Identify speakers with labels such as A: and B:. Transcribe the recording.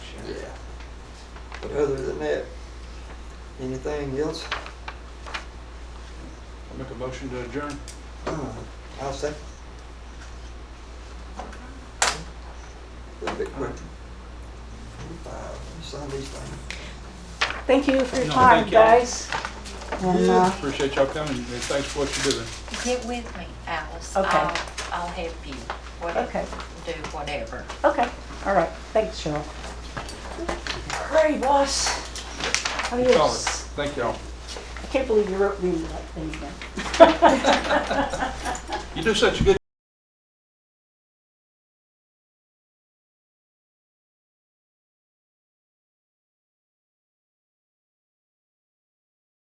A: But other than that, anything else?
B: I make a motion to adjourn.
A: Uh, I'll say. A bit quick. Uh, Sign these things.
C: Thank you for your
B: No,
C: time,
B: thank y'all.
C: guys. And, uh,
B: Appreciate y'all coming, and thanks for what you're doing.
D: Get with me, Alice.
C: Okay.
D: I'll, I'll help you. What-
C: Okay.
D: Do whatever.
C: Okay, all right, thanks, Cheryl. Great, boss.
B: Solid.
C: Adios.
B: Thank y'all.
C: I can't believe you wrote me that thing again.
B: You do such a good